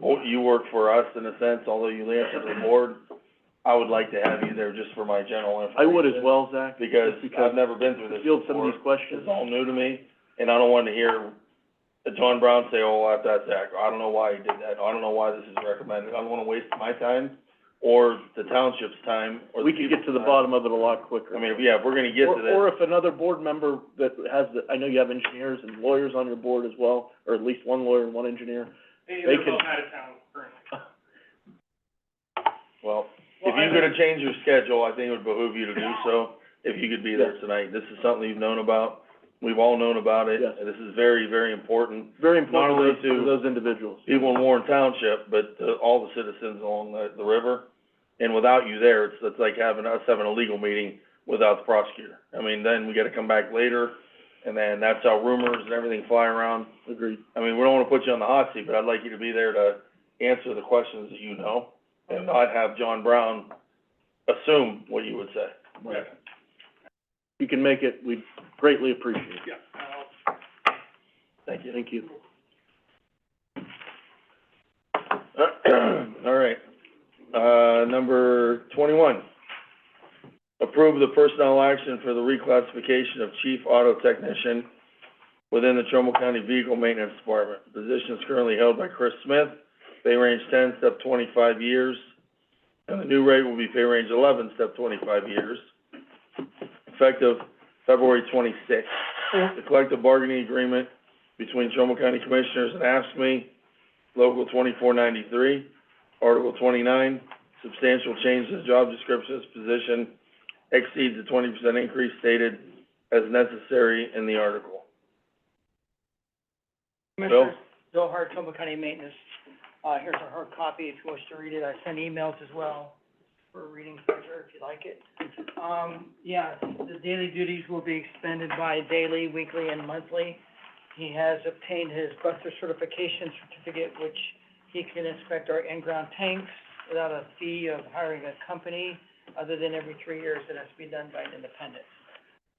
wo- you work for us in a sense, although you answer to the board. I would like to have you there just for my general I information. would as well, Zach, just Because because I've never been through to this field some of before. these It's questions. all new to me, and I don't want to hear John Brown say, oh, that, that's Zach, I don't know why he did that, I don't know why this is recommended, I don't want to waste my time, or the township's time, or the We could get to the people's bottom of it a lot quicker. time. I mean, if- yeah, if we're gonna get to Or, that, or if another board member that has the, I know you have engineers and lawyers on your board as well, or at least one lawyer and one engineer. They They, they're can- both out of town currently. well, Well, if I- you're gonna change your schedule, I think it would behoove you to do so, if you could be there tonight. This is something you've known about, we've all known about it, Yes. and this is very, very important, Very Not only important to those- to- to those individuals. people in Warren Township, but to all the citizens along the, the river. And without you there, it's, it's like having, us having a legal meeting without the prosecutor. I mean, then we gotta come back later, and then that's how rumors and everything fly around. Agreed. I mean, we don't wanna put you on the hot seat, but I'd like you to be there to answer the questions that you know, and not have John Brown assume what you would say. Yeah, If you can make it, we'd greatly appreciate it. yeah, I'll- Thank you. Thank you. All right. Uh, number twenty-one. Approve the personnel action for the reclassification of chief auto technician within the Trumbull County Vehicle Maintenance Department. Position is currently held by Chris Smith, pay range ten, step twenty-five years. And the new rate will be pay range eleven, step twenty-five years, effective February twenty-sixth. The collective bargaining agreement between Trumbull County Commissioners and ASME Local twenty-four ninety-three, Article twenty-nine, substantial change to the job descriptions position exceeds the twenty percent increase stated as necessary in the article. Commissioner Bill Hart, Trumbull County Maintenance, uh, here's a hard copy if you wish to read it, I sent emails as well for reading pleasure if you like it. Um, yeah, the daily duties will be expended by daily, weekly, and monthly. He has obtained his Buster certification certificate, which he can inspect our in-ground tanks without a fee of hiring a company, other than every three years, it has to be done by an independent.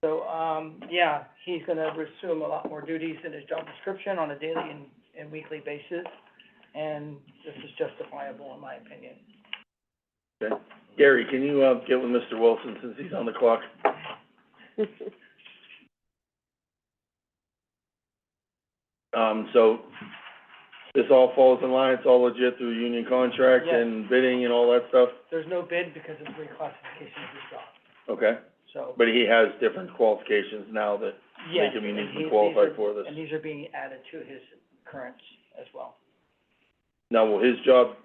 So, um, yeah, he's gonna resume a lot more duties in his job description on a daily and, and weekly basis, and this is justifiable in my opinion. Gary, can you, uh, get with Mr. Wilson since he's on the clock? Um, so, this all falls in line, it's all legit through union contract Yes. and bidding and all that stuff? There's no bid because it's reclassification of his job, Okay, so, but he has different qualifications now that yes, make and him he, these uniquely are, qualified for this. and these are being added to his currents as well. Now, will his job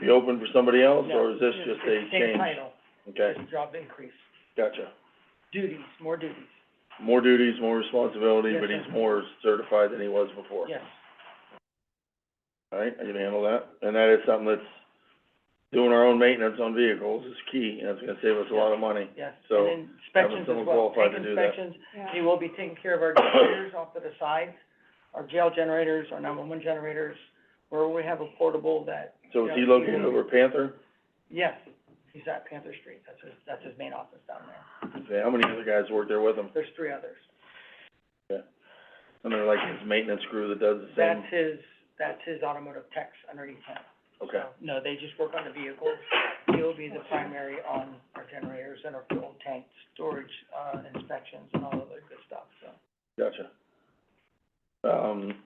be open for somebody else, or is this No, just a it's- it's change? Same title, Okay, it's a job increase, gotcha. duties, more duties, More duties, more responsibility, Yes, but sir. he's more certified than he was before. yes. All right, I can handle that. And that is something that's, doing our own maintenance on vehicles is key, and it's gonna save us a lot of money. Yes, So, and inspections someone as well, qualified tank to do that. inspections, he will be taking care of our generators off to the side, our jail generators, our nine-one-one generators, where we have a portable that, So is he Yeah. located over at Panther? yes, he's at Panther Street, that's his, that's his main office down there. Okay, how many other guys work there with him? There's three others. I mean, like his maintenance crew that does the same? That's his, that's his automotive techs underneath him. Okay, So, No, they just work on the vehicles, he'll be the primary on our generators and our fuel tank storage, uh, inspections and all of that good stuff, so. gotcha. Um,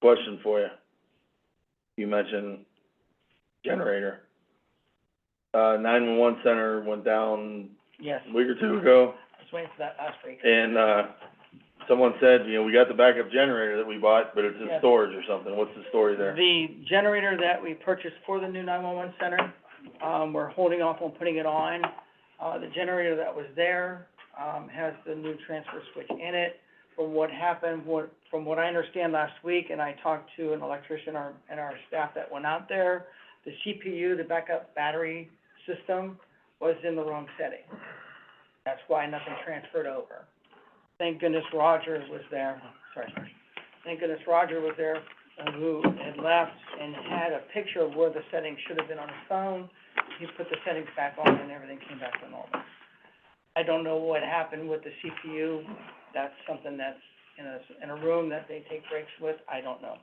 question for you. You mentioned generator. Uh, nine-one-one center went down Yes, a week or two ago, I was waiting for that last week. and, uh, someone said, you know, we got the backup generator that we bought, but it's in Yes. storage or something. What's the story there? The generator that we purchased for the new nine-one-one center, um, we're holding off on putting it on. Uh, the generator that was there, um, has the new transfer switch in it. From what happened, what, from what I understand last week, and I talked to an electrician our- and our staff that went out there, the CPU, the backup battery system, was in the wrong setting. That's why nothing transferred over. Thank goodness Roger was there, sorry, sorry. Thank goodness Roger was there uh, who had left and had a picture of where the settings should have been on his phone. He put the settings back on and everything came back to normal. I don't know what happened with the CPU. That's something that's in a, in a room that they take breaks with. I don't know.